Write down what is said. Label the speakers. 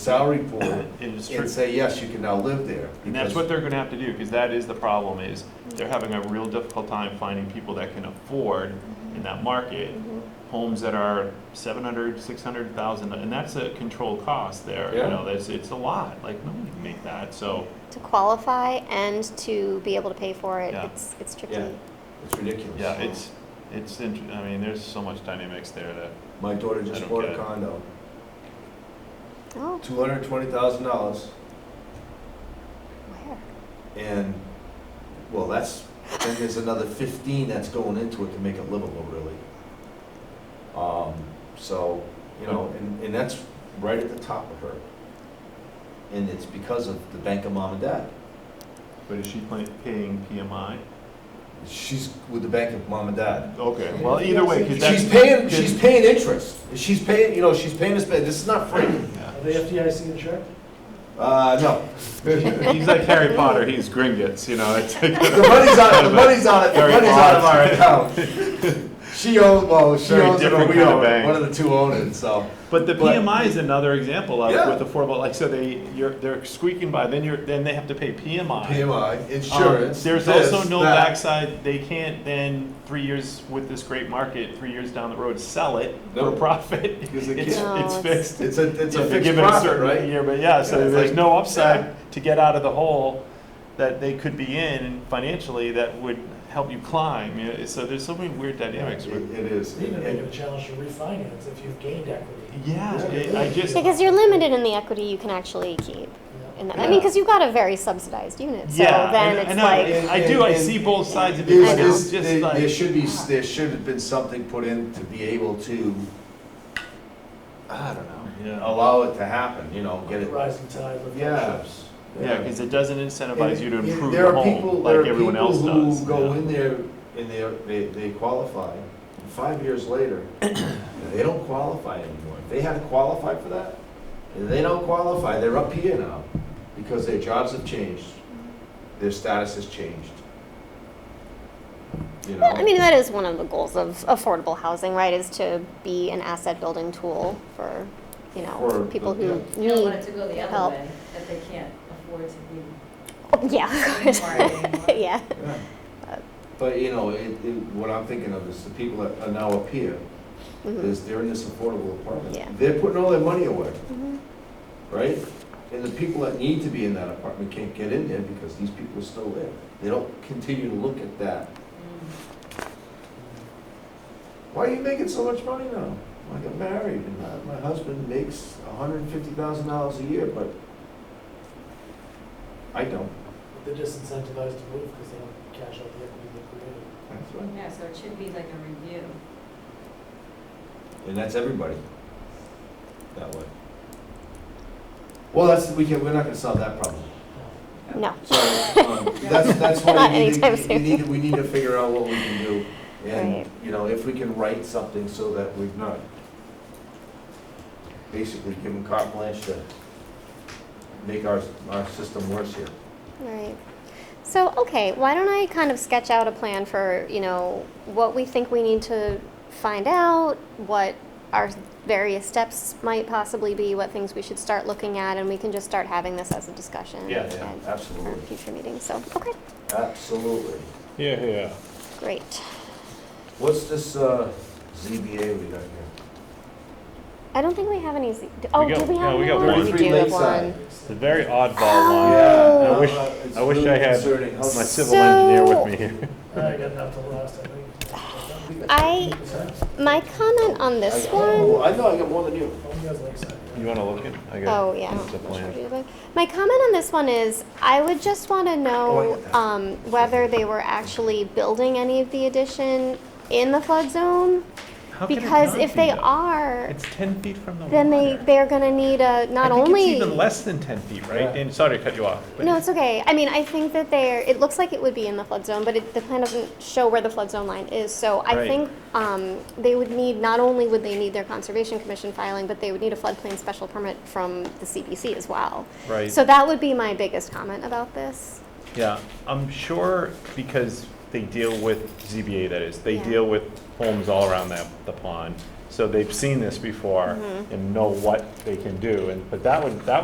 Speaker 1: salary pool
Speaker 2: It is true.
Speaker 1: and say, yes, you can now live there.
Speaker 2: And that's what they're gonna have to do, because that is the problem, is they're having a real difficult time finding people that can afford in that market, homes that are seven hundred, six hundred thousand, and that's a controlled cost there, you
Speaker 1: Yeah.
Speaker 2: know, that's, it's a lot, like, nobody can make that, so.
Speaker 3: to qualify and to be able to pay for it,
Speaker 2: Yeah.
Speaker 3: it's, it's tricky.
Speaker 1: Yeah. It's ridiculous.
Speaker 2: Yeah, it's, it's, int- I mean, there's so much dynamics there that,
Speaker 1: My daughter
Speaker 2: I
Speaker 1: just
Speaker 2: don't
Speaker 1: bought
Speaker 2: get
Speaker 1: a
Speaker 2: it.
Speaker 1: condo,
Speaker 3: Oh,
Speaker 1: two hundred and twenty thousand dollars,
Speaker 3: where?
Speaker 1: and, well, that's, then there's another fifteen that's going into it to make it livable, really. Um, so, you know, and, and that's right at the top of her. And it's because of the bank of mom and dad.
Speaker 2: but is she pla- paying PMI?
Speaker 1: She's with the bank of mom and dad.
Speaker 2: Okay, well, either way, because that's.
Speaker 1: She's paying,
Speaker 2: 'cause-
Speaker 1: she's paying interest. She's paying, you know, she's paying this, this is not free.
Speaker 2: yeah.
Speaker 4: Are they FDIC insured?
Speaker 1: Uh, no.
Speaker 2: He's like Harry Potter, he's Gringotts, you know, it's like.
Speaker 1: The money's on, the money's on it, the
Speaker 2: Very
Speaker 1: money's out of our
Speaker 2: odd.
Speaker 1: account. She owns, well, she
Speaker 2: Very
Speaker 1: owns it or
Speaker 2: different
Speaker 1: we
Speaker 2: kind of
Speaker 1: own it,
Speaker 2: bank.
Speaker 1: one of the two own it, so.
Speaker 2: But the
Speaker 1: But-
Speaker 2: PMI is another example of it
Speaker 1: Yeah.
Speaker 2: with affordable, like, so they, you're, they're squeaking by, then you're, then they have to pay PMI.
Speaker 1: PMI,
Speaker 2: Um,
Speaker 1: insurance.
Speaker 2: There's
Speaker 1: this,
Speaker 2: also no
Speaker 1: that.
Speaker 2: backside, they can't then, three years with this great market, three years down the road, sell it
Speaker 1: No.
Speaker 2: for profit.
Speaker 1: Because they
Speaker 2: It's,
Speaker 3: can't.
Speaker 2: it's
Speaker 3: No, it's-
Speaker 2: fixed.
Speaker 1: It's a, it's
Speaker 2: If
Speaker 1: a
Speaker 2: they're
Speaker 1: fixed
Speaker 2: given a
Speaker 1: profit,
Speaker 2: certain
Speaker 1: right?
Speaker 2: year, But yeah,
Speaker 1: Yeah,
Speaker 2: so
Speaker 1: it's
Speaker 2: there's
Speaker 1: like-
Speaker 2: no
Speaker 1: yeah.
Speaker 2: upside to get out of the hole that they could be in financially that would help you climb, you know, so there's so many weird dynamics
Speaker 1: It
Speaker 2: with.
Speaker 1: it is.
Speaker 4: Even they
Speaker 1: And-
Speaker 4: could challenge to refinance if you've gained equity.
Speaker 2: Yeah, it- I just.
Speaker 3: Because you're limited in the equity you can actually keep.
Speaker 4: Yeah.
Speaker 3: In the, I mean,
Speaker 1: Yeah.
Speaker 3: because you've got a very subsidized unit, so then
Speaker 2: and-
Speaker 3: it's
Speaker 2: and
Speaker 3: like,
Speaker 2: I, I do. I
Speaker 1: And-
Speaker 2: see both sides of it.
Speaker 1: There's-
Speaker 3: I
Speaker 2: but
Speaker 3: know.
Speaker 1: there's-
Speaker 2: It's just
Speaker 1: there- There
Speaker 2: like
Speaker 1: should be, there should have been something put in to be able to, I don't know,
Speaker 2: yeah,
Speaker 1: allow it to happen, you know, get it.
Speaker 4: Rising tide lifts all
Speaker 1: Yeah.
Speaker 4: ships.
Speaker 2: because it doesn't incentivize you to
Speaker 1: And- and
Speaker 2: improve
Speaker 1: there
Speaker 2: your
Speaker 1: are
Speaker 2: home
Speaker 1: people-
Speaker 2: like everyone else
Speaker 1: There are people
Speaker 2: does.
Speaker 1: who go
Speaker 2: yeah.
Speaker 1: in there and they're, they, they qualify, and five years later, they don't qualify anymore. If they had to qualify for that, they don't qualify, they're up here now, because their jobs have changed, their status has changed. You know?
Speaker 3: Well, I mean, that is one of the goals of affordable housing, right, is to be an asset building tool for, you know,
Speaker 1: For
Speaker 3: for people
Speaker 1: the-
Speaker 3: who
Speaker 5: You don't want it
Speaker 3: need.
Speaker 5: to go the
Speaker 3: help.
Speaker 5: other way, that they can't afford to be.
Speaker 3: Oh, Yeah, of course.
Speaker 5: Right.
Speaker 1: Yeah.
Speaker 3: Yeah.
Speaker 1: But, you know, it, it, what I'm thinking of is the people that are now up here,
Speaker 3: Mhm.
Speaker 1: is they're in this affordable
Speaker 3: Yeah.
Speaker 1: apartment. They're putting all their money away.
Speaker 3: Mhm.
Speaker 1: right? And the people that need to be in that apartment can't get in there because these people are still there. They don't continue to look at that. Why are you making so much money now? I got married and my, my husband makes hundred and fifty thousand dollars a year, but I don't.
Speaker 4: They're disincentivized to move because they don't cash out the equity they created.
Speaker 1: That's right.
Speaker 5: Yeah, so it should be like a review.
Speaker 1: And that's everybody that way. Well, that's, we can, we're not gonna solve that problem.
Speaker 3: No.
Speaker 1: So, um, that's, that's why
Speaker 3: Not
Speaker 1: we need,
Speaker 3: anytime
Speaker 1: to- we need, we need to figure out what we can do.
Speaker 3: Right.
Speaker 1: And, you know, if we can write something so that we've not basically given carte blanche to make our, our system worse here.
Speaker 3: Right. So, okay, why don't I kind of sketch out a plan for, you know, what we think we need to find out, what our various steps might possibly be, what things we should start looking at, and we can just start having this as a discussion.
Speaker 2: Yeah,
Speaker 3: at- For
Speaker 1: Absolutely,
Speaker 3: future meetings, so, okay,
Speaker 1: absolutely.
Speaker 2: yeah, yeah.
Speaker 3: great.
Speaker 1: What's this, uh, ZBA we got here?
Speaker 3: I don't think we have any, Z- d- oh,
Speaker 6: got-
Speaker 3: do we
Speaker 6: yeah,
Speaker 3: have?
Speaker 6: we got
Speaker 3: one?
Speaker 6: one.
Speaker 3: We
Speaker 1: 33
Speaker 3: do have
Speaker 1: Lakeside.
Speaker 3: one.
Speaker 6: It's a very oddball
Speaker 3: Oh.
Speaker 6: line.
Speaker 1: Yeah,
Speaker 6: I wish-
Speaker 1: uh, it's
Speaker 6: I wish
Speaker 1: really
Speaker 6: I had
Speaker 1: concerning.
Speaker 6: My
Speaker 1: How's-
Speaker 6: civil engineer
Speaker 3: So-
Speaker 6: with me here.
Speaker 4: I got enough to last, I think.
Speaker 3: I- My comment on
Speaker 1: I-
Speaker 3: this
Speaker 1: oh,
Speaker 3: one,
Speaker 1: I know, I got more than you.
Speaker 4: Home guys like side.
Speaker 6: You want to look at? I got-
Speaker 3: oh, yeah.
Speaker 6: It's a plan.
Speaker 3: My comment on this one is, I would just want to
Speaker 1: Oh, I
Speaker 3: know
Speaker 1: get that.
Speaker 3: um, whether they were actually building any of the addition in the flood zone,
Speaker 6: How can it
Speaker 3: because
Speaker 6: not
Speaker 3: if
Speaker 6: be,
Speaker 3: they
Speaker 6: though?
Speaker 3: are,
Speaker 6: It's ten feet from the water.
Speaker 3: then they, they're gonna need a, not
Speaker 6: I think
Speaker 3: only.
Speaker 6: it's even less than ten feet, right?
Speaker 1: Yeah.
Speaker 6: And sorry to cut you off. but-
Speaker 3: No, it's okay. I mean, I think that they're, it looks like it would be in the flood zone, but it, the plan doesn't show where the flood zone line is. So I
Speaker 6: Right.
Speaker 3: think um, they would need, not only would they need their Conservation Commission filing, but they would need a floodplain special permit from the CBC as well.
Speaker 6: Right.
Speaker 3: So that would be my biggest comment about this.
Speaker 6: Yeah, I'm sure because they deal with ZBA, that is, they
Speaker 3: Yeah.
Speaker 6: deal with homes all around that, the pond.
Speaker 2: so they've seen this before
Speaker 7: Mhm.
Speaker 2: and know what they can do, and, but that would, that